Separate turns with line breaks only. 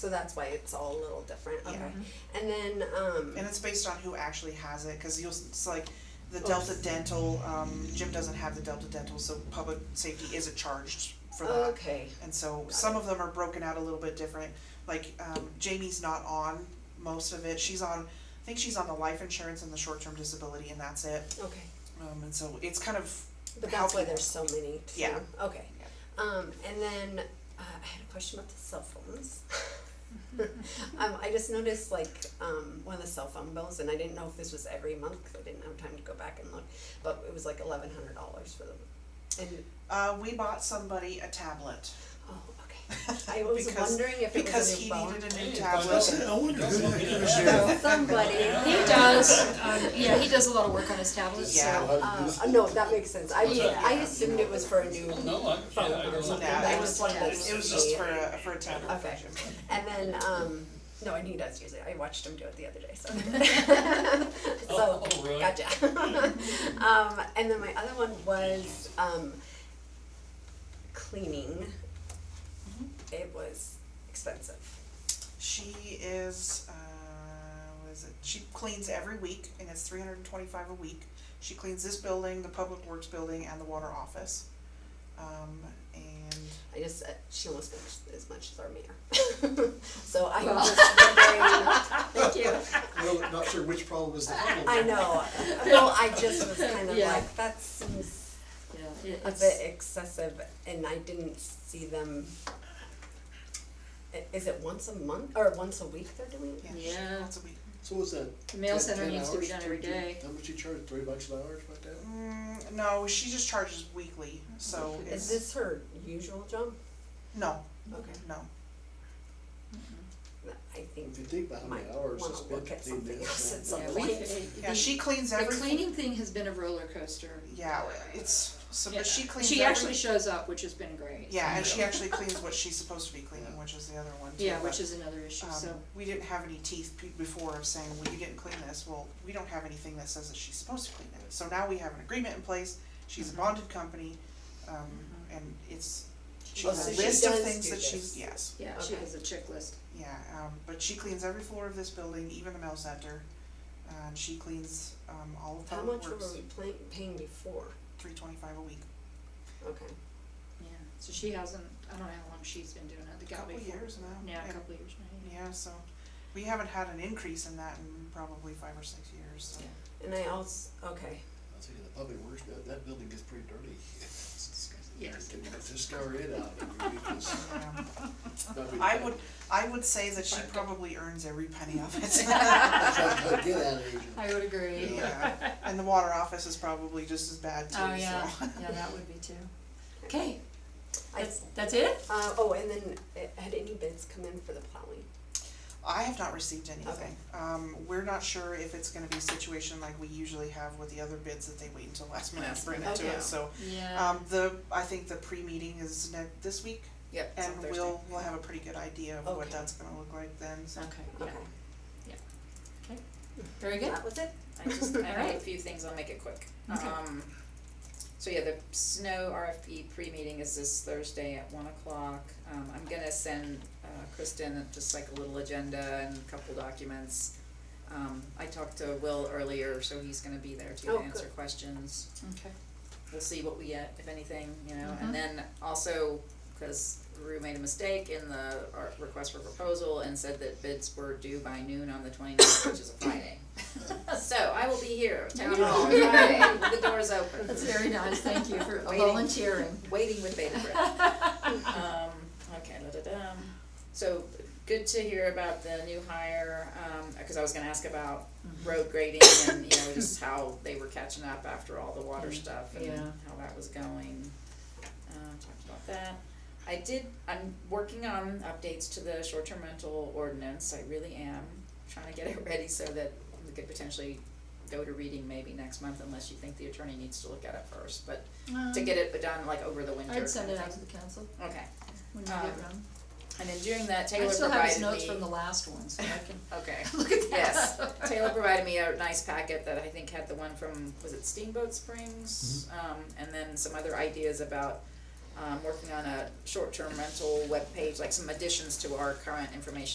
So that's why it's all a little different,
Yeah.
okay. And then, um,
And it's based on who actually has it, cause you'll, s- it's like, the Delta Dental, um, Jim doesn't have the Delta Dental, so public safety isn't charged for that.
okay,
And so some of them are broken out a little bit different, like, um, Jamie's not on most of it, she's on, I think she's on the life insurance and the short-term disability and that's it.
okay.
Um, and so it's kind of,
But that's why
Helpful.
there's so many too.
Yeah.
Okay. Um, and then uh, I had a question about the cell phones. um, I just noticed like um, one of the cell phone bills, and I didn't know if this was every month because I didn't have time to go back and look, but it was like eleven hundred dollars for them. And
uh, we bought somebody a tablet.
oh, okay. I was
Because-
wondering if it
Because
was a new
he
phone.
needed a new
I
tablet.
wonder who that could have been.
So somebody.
He does, um, yeah, he does a lot of work on his tablets, so.
Yeah.
Uh, no, that makes sense. I
What's that?
I assumed it was for a new
No, I, yeah,
phone
I
or
don't know.
something.
Yeah,
That
it
was
was,
one of those
it was just
CDs.
for a, for a tablet.
Okay. And then, um, no, I knew he does use it, I watched him do it the other day, so.
Oh,
So,
oh, really?
gotcha. Um, and then my other one was, um, cleaning. It was expensive.
She is, uh, what is it? She cleans every week and it's three hundred and twenty-five a week. She cleans this building, the public works building and the water office. Um, and
I just, uh, she almost makes as much as our mayor. So I'm just wondering, thank you.
Well, not sure which problem is the problem.
I know, well, I just was kind of
Yeah.
like, that seems
Yeah,
a
it's-
bit excessive and I didn't see them. I- Is it once a month or once a week they're doing it?
yeah, she-
Yeah.
that's a week.
So what's that?
The mail
10
center
10
needs to be
hours?
done every
Three- three-
day.
How much you charge, three bucks an hour, like that?
Mm, no, she just charges weekly, so
Is
it's,
this her usual job?
no,
Okay.
no. Mm-hmm.
I think
If you think about how many
might
hours
wanna
it's been
look
to
at
clean
something else at
this.
some
Yeah, we,
point.
Yeah,
the,
she cleans
the
every.
cleaning thing has been a roller coaster.
Yeah, it's, so,
Yeah.
but she cleans every.
She actually shows up, which has been great.
Yeah, and she actually cleans what she's supposed to be cleaning, which is the other one too,
Yeah,
but-
which is another issue,
Um,
so,
we didn't have any teeth pe- before of saying, well, you didn't clean this, well, we don't have anything that says that she's supposed to clean it. So now we have an agreement in place, she's a bonded company, um, and it's, she
Oh,
has
so
a
she
list of
does
things
do
that
this.
she's, yes,
yeah, she
Okay.
has a checklist.
yeah, um, but she cleans every floor of this building, even the mail center. And she cleans, um, all of
How
public
much were
works,
we playing, paying before?
three twenty-five a week,
Okay,
Yeah, so she hasn't, I don't know how long she's been doing it, the
a
gal
couple
before.
years now, yeah,
Yeah, a couple years now,
yeah, so, we haven't had an increase in that in probably five or six years, so.
Yeah.
and I also, okay,
I'll tell you, the public works, that, that building gets pretty dirty.
yeah. Yes.
You have to scour it out every week, it's
yeah.
not really-
I would, I would say that she probably earns every penny of it.
Try to Get out of here.
I would agree.
Yeah, and the water office is probably just as bad too, so.
Oh, yeah, yeah, that would be too. Okay,
I,
that's, that's it?
uh, oh, and then uh, had any bids come in for the plowing?
I have not received anything. Um, we're not sure if it's gonna be a situation like we usually have with the other bids that they wait until last minute to bring it to
Okay.
us, so.
Yeah.
Um, the, I think the pre-meeting is ne- this week,
Yep.
and we'll, we'll have a pretty good idea of what
Okay.
that's gonna look like then, so.
Okay, yeah,
Okay,
Very good.
that was it?
I just, I have a
Alright.
few things, I'll make it quick.
Okay.
Um, so yeah, the snow RFP pre-meeting is this Thursday at one o'clock. Um, I'm gonna send, uh, Kristen just like a little agenda and a couple documents. Um, I talked to Will earlier, so he's gonna be there
Oh,
to
good.
answer questions
Okay.
we'll see what we get, if anything, you know,
Mhm.
and then also, cause Rue made a mistake in the our request for proposal and said that bids were due by noon on the 29th, which is a Friday. So I will be here, town hall, Friday, the door's open.
That's very nice, thank you for
Waiting.
volunteering.
Waiting with bated breath. Um, okay, da-da-dum. So, good to hear about the new hire, um, cause I was gonna ask about road grading and, you know, just how they were catching up after all the water stuff and
Yeah.
how that was going. Uh, talked about that. I did, I'm working on updates to the short-term rental ordinance, I really am, trying to get it ready so that we could potentially go to reading maybe next month unless you think the attorney needs to look at it first, but to get it done like over the winter.
Uh, I'd send it
kind
out
of
to
thing.
the council
Okay,
when you get
Um,
around.
and in doing that,
I
Taylor
still have his
provided
notes from
me,
the last one, so I can
okay,
look at that.
yes, Taylor provided me a nice packet that I think had the one from, was it Steamboat Springs? Um, and then some other ideas about, um, working on a short-term rental webpage, like some additions to our current information